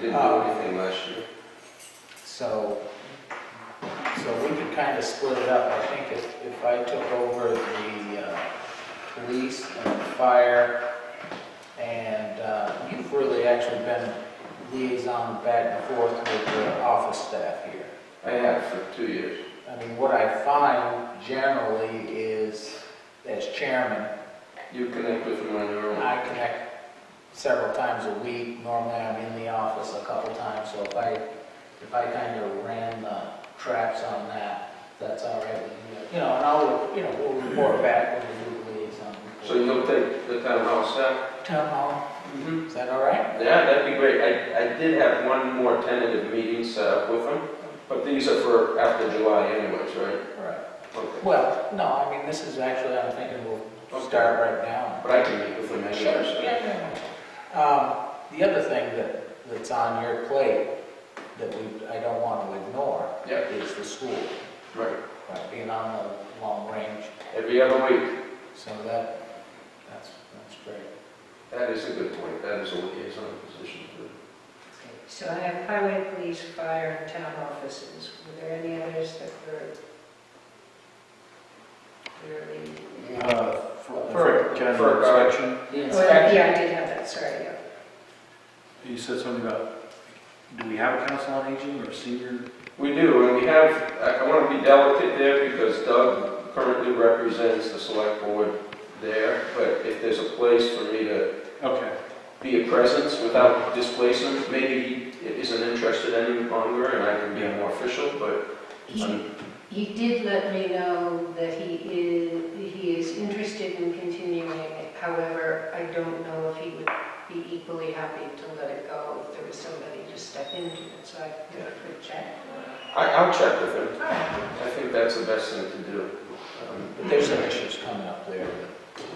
Didn't do Uh, anything last year. So, so we could kind of split it up. I think if, if I took over the uh, police and fire, and uh, you've really actually been liaison back and forth with the office staff here. I have for two years. I mean, what I find generally is, as chairman, You connect with them on your own. I connect several times a week. Normally, I'm in the office a couple times, so if I, if I kind of ran the traps on that, that's all right with you. You know, and I'll, you know, we'll report back when we do liaison. So you'll take the town hall staff? Town hall, Mm-hmm. is that all right? Yeah, that'd be great. I, I did have one more tentative meeting set up with them, but these are for after July anyways, right? Right. Okay. Well, no, I mean, this is actually, I'm thinking we'll start right now. But I can meet with them Sure, anyways. yeah, yeah. Um, The other thing that, that's on your plate that we, I don't want to ignore Yep. is the school, Right, right, being on the long range. every other week. So that, that's, that's great. That is a good point. That is a liaison position. So I have highway, police, fire, and town offices. Were there any others that were clearly? Uh, For for For, general uh, inspection, The Well, inspection, Oh, yeah, I did have that, sorry, yeah. you said something about, do we have a council on aging or senior? We do, and we have, I want to be delicate there because Doug currently represents the select board there, but if there's a place for me to Okay, be a presence without displacement. Maybe he isn't interested any longer and I can be more official, but He, um, he did let me know that he is, he is interested in continuing it. However, I don't know if he would be equally happy to let it go if there was somebody to step into it, so I could check. I, I'll check with him. All right. I think that's the best thing to do. Um, but there's some issues coming up there.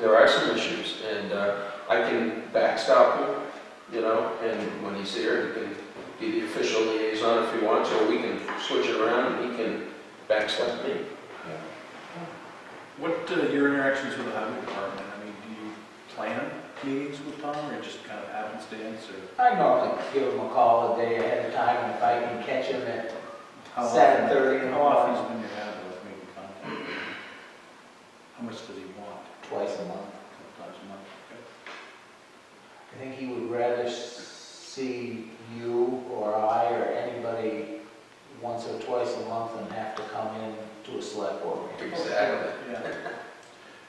There are some issues and uh, I can backstop him, you know, and when he's here, he can be the official liaison if he wants, or we can switch it around and he can backstop me. what uh, your interactions with the highway department? I mean, do you plan meetings with Tom or just kind of happenstance or? I normally give him a call a day ahead of time, and if I can catch him at, how often- 7:30 in the How often has been your habit of making contact? How much does he want? twice a month. A couple times a month? I think he would rather s- see you or I or anybody once or twice a month than have to come in to a select board meeting. Exactly. Okay.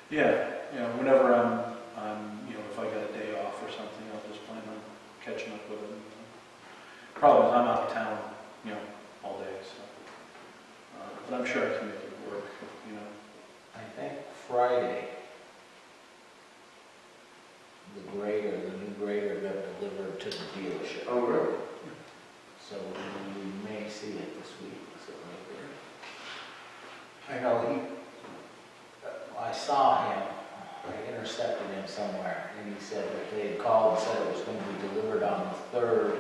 Yeah. Yeah, yeah, whenever I'm, I'm, you know, if I got a day off or something, I'll just plan on catching up with him. Problem is, I'm out of town, you know, all day, so. uh, But I'm sure I can make it work, you know. I think Friday, the grader, the new grader got delivered to the dealership. Oh, really? So we may see it this week, so right there. I know he, I saw him, I intercepted him somewhere, and he said that they had called and said it was gonna be delivered on the third.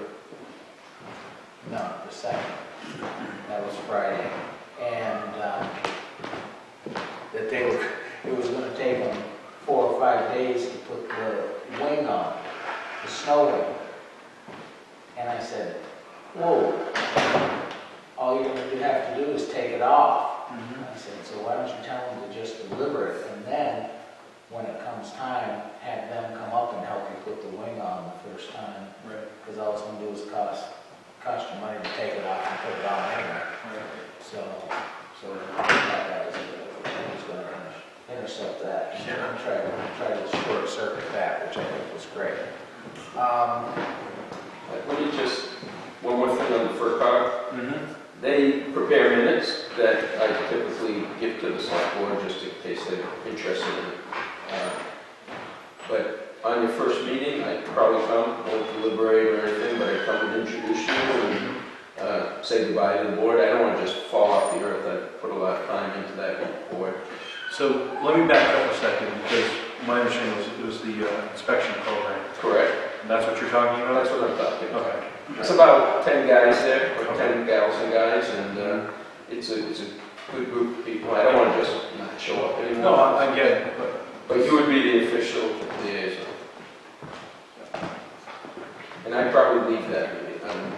No, the second, that was Friday, and, um, that they were, it was gonna take them four or five days to put the wing on, the snow wing. And I said, whoa, all you would have to do is take it off. And I said, so why don't you tell them to just deliver it, and then, when it comes time, have them come up and help you put the wing on the first time, Right, because all it's gonna do is cost, cost you money to take it off and put it on anyway. right. So, so that was, I was gonna inter- intercept that, and Yeah. try to, try to short circuit that, which I think was great. Um, Let me just, one more thing on the FERCog. They prepare minutes that I typically give to the select board just in case they're interested in it. Uh, But on your first meeting, I probably come, won't deliberate or anything, but I come and introduce you and uh, say goodbye to the board. I don't want to just fall off the earth. I put a lot of time into that board. So let me back up a second, because my understanding was it was the uh, inspection program. Correct. That's what you're talking That's about? what I'm talking about. Okay. It's about 10 guys there, or 10 gals and guys, and uh, it's a, it's a good group of people. I don't want to just not show up anymore. No, I I get it, but, But you would be the official liaison. And I'd probably leave that meeting, I um,